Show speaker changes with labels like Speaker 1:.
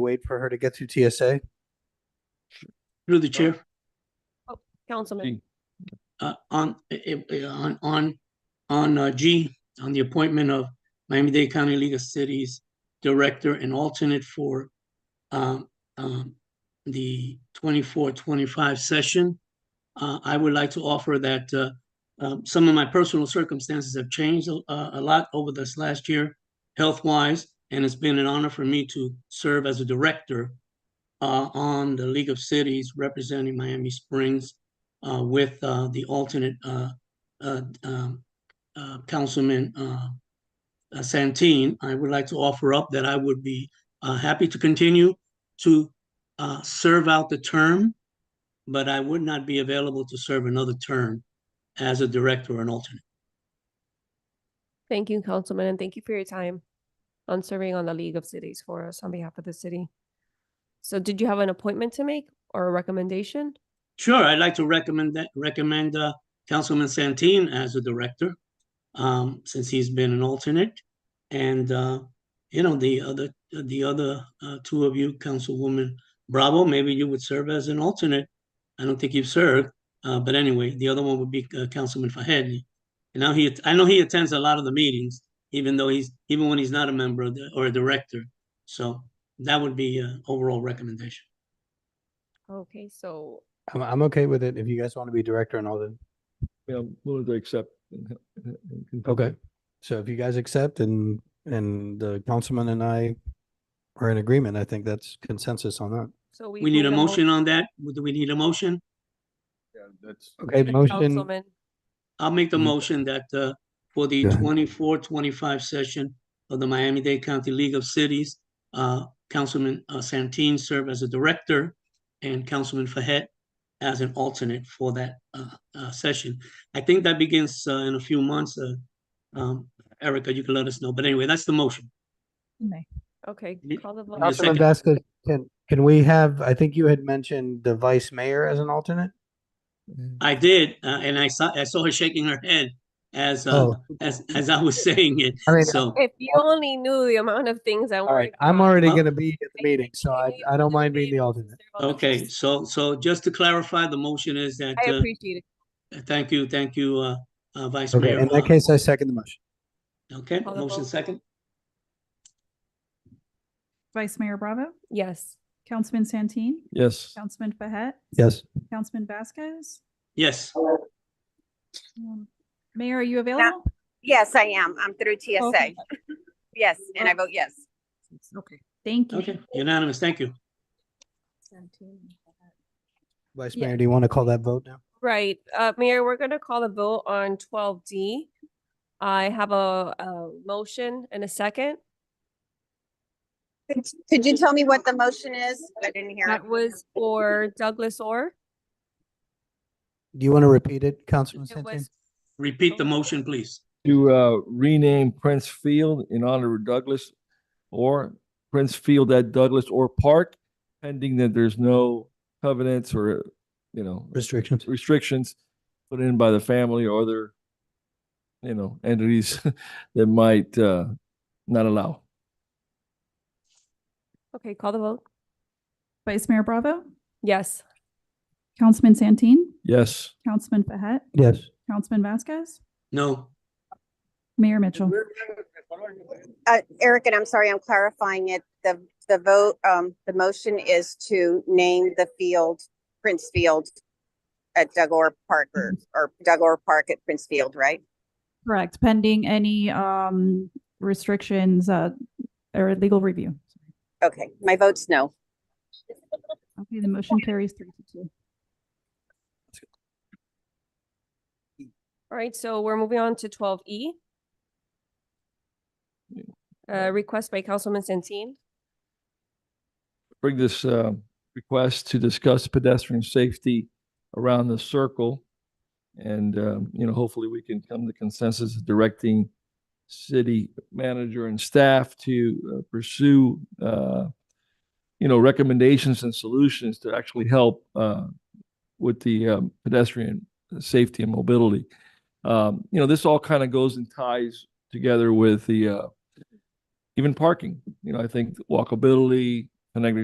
Speaker 1: wait for her to get through TSA?
Speaker 2: Through the chair,
Speaker 3: Councilman,
Speaker 2: uh, on, eh, eh, on, on, on, uh, G, on the appointment of Miami-Dade County League of Cities Director and alternate for, um, um, the 24-25 session. Uh, I would like to offer that, uh, um, some of my personal circumstances have changed, a- uh, a lot over this last year, health-wise, and it's been an honor for me to serve as a director, uh, on the League of Cities representing Miami Springs uh, with uh, the alternate uh, uh, um, uh, Councilman uh, uh, Santeen, I would like to offer up that I would be uh, happy to continue to uh, serve out the term, but I would not be available to serve another term as a director or an alternate.
Speaker 3: thank you, Councilman, and thank you for your time on serving on the League of Cities for us on behalf of the city. So did you have an appointment to make or a recommendation?
Speaker 2: Sure, I'd like to recommend that recommend uh, Councilman Santeen as a director, um, since he's been an alternate, and uh, you know the other the other uh, two of you, Councilwoman Bravo, maybe you would serve as an alternate. I don't think you've served, uh, but anyway, the other one would be uh, Councilman Fahed. And now he, I know he attends a lot of the meetings, even though he's even when he's not a member of the, or a director. So that would be uh, overall recommendation.
Speaker 3: Okay, so
Speaker 1: I'm, I'm okay with it if you guys want to be director and all that.
Speaker 4: Yeah, I'm willing to accept. and- and- and confirm.
Speaker 1: Okay. So if you guys accept and, and the councilman and I are in agreement, I think that's consensus on that.
Speaker 3: so we.
Speaker 2: We need
Speaker 3: need
Speaker 2: a
Speaker 3: mo-
Speaker 2: motion on that. Do we need a motion?
Speaker 4: Yeah, that's.
Speaker 1: Okay, motion,
Speaker 3: Councilman,
Speaker 2: I'll make the
Speaker 1: Mm.
Speaker 2: motion that, uh, for the
Speaker 1: Go ahead.
Speaker 2: 24-25 session of the Miami-Dade County League of Cities, uh, Councilman uh, Santeen serve as a director and Councilman Fahet as an alternate for that, uh, uh, session. I think that begins, uh, in a few months, uh, um, Erica, you can let us know. But anyway, that's the motion.
Speaker 3: okay,
Speaker 2: Ye-
Speaker 3: call the
Speaker 2: Yes,
Speaker 3: vote.
Speaker 1: Councilman
Speaker 2: second.
Speaker 1: Vasquez, can, can we have, I think you had mentioned the vice mayor as an alternate?
Speaker 2: I did, uh, and I saw, I saw her shaking her head as, uh,
Speaker 1: Oh.
Speaker 2: as, as I was saying it.
Speaker 1: I mean,
Speaker 2: So,
Speaker 3: If you only knew the amount of things I.
Speaker 1: all right, I'm already going to be at the
Speaker 3: Thank you.
Speaker 1: meeting, so I, I don't mind being the alternate.
Speaker 2: okay, so, so just to clarify, the motion is that,
Speaker 3: I
Speaker 2: uh,
Speaker 3: appreciate it.
Speaker 2: Uh, Thank you, thank you, uh, uh, Vice
Speaker 1: Okay,
Speaker 2: Mayor.
Speaker 1: in that
Speaker 2: Uh,
Speaker 1: case, I second the motion.
Speaker 2: Okay,
Speaker 3: Call the
Speaker 2: motion
Speaker 3: vote.
Speaker 2: second.
Speaker 5: Vice Mayor Bravo,
Speaker 3: Yes,
Speaker 5: Councilman Santeen,
Speaker 4: Yes,
Speaker 5: Councilman Behet,
Speaker 1: Yes.
Speaker 5: Councilman Vasquez.
Speaker 2: Yes,
Speaker 5: Um, Mayor, are you available?
Speaker 6: Yes, I am. I'm through TSA.
Speaker 5: Okay.
Speaker 6: Yes, and I vote yes.
Speaker 5: Okay, thank you.
Speaker 2: okay, unanimous, thank you.
Speaker 1: Vice
Speaker 5: Yeah.
Speaker 1: Mayor, do you want to call that vote now?
Speaker 3: right, uh, Mayor, we're gonna call the vote on twelve D. I have a, a motion and a second.
Speaker 6: Could- Could you tell me what the motion is? I didn't hear it.
Speaker 3: That was for Douglas Orr.
Speaker 1: Do you want to repeat it, Councilman
Speaker 3: It
Speaker 1: Santeen?
Speaker 3: was,
Speaker 2: Repeat the motion, please.
Speaker 4: to uh, rename Prince Field in honor of Douglas or Prince Field at Douglas or Park, pending that there's no covenants or, you know,
Speaker 1: Restrictions.
Speaker 4: restrictions put in by the family or other, you know, entities that might uh, not allow.
Speaker 3: okay, call the vote.
Speaker 5: Vice Mayor Bravo,
Speaker 3: Yes,
Speaker 5: Councilman Santeen,
Speaker 4: Yes,
Speaker 5: Councilman Behet,
Speaker 1: Yes.
Speaker 5: Councilman Vasquez,
Speaker 2: No,
Speaker 5: Mayor Mitchell.
Speaker 6: Uh, Eric, and I'm sorry, I'm clarifying it. The, the vote, um, the motion is to name the field Prince Field at Doug Orr Park or, or Doug Orr Park at Prince Field, right?
Speaker 5: Correct, pending any um restrictions uh or legal review.
Speaker 6: Okay, my vote's no.
Speaker 5: Okay, the motion carries three to two.
Speaker 3: all right, so we're moving on to twelve E. Uh, request by Councilman Santeen.
Speaker 4: bring this uh, request to discuss pedestrian safety around the circle. And, um, you know, hopefully we can come to consensus directing city manager and staff to uh, pursue, uh, you know, recommendations and solutions to actually help uh, with the um, pedestrian safety and mobility. Um, You know, this all kind of goes and ties together with the, uh, even parking. You know, I think walkability, Connecticut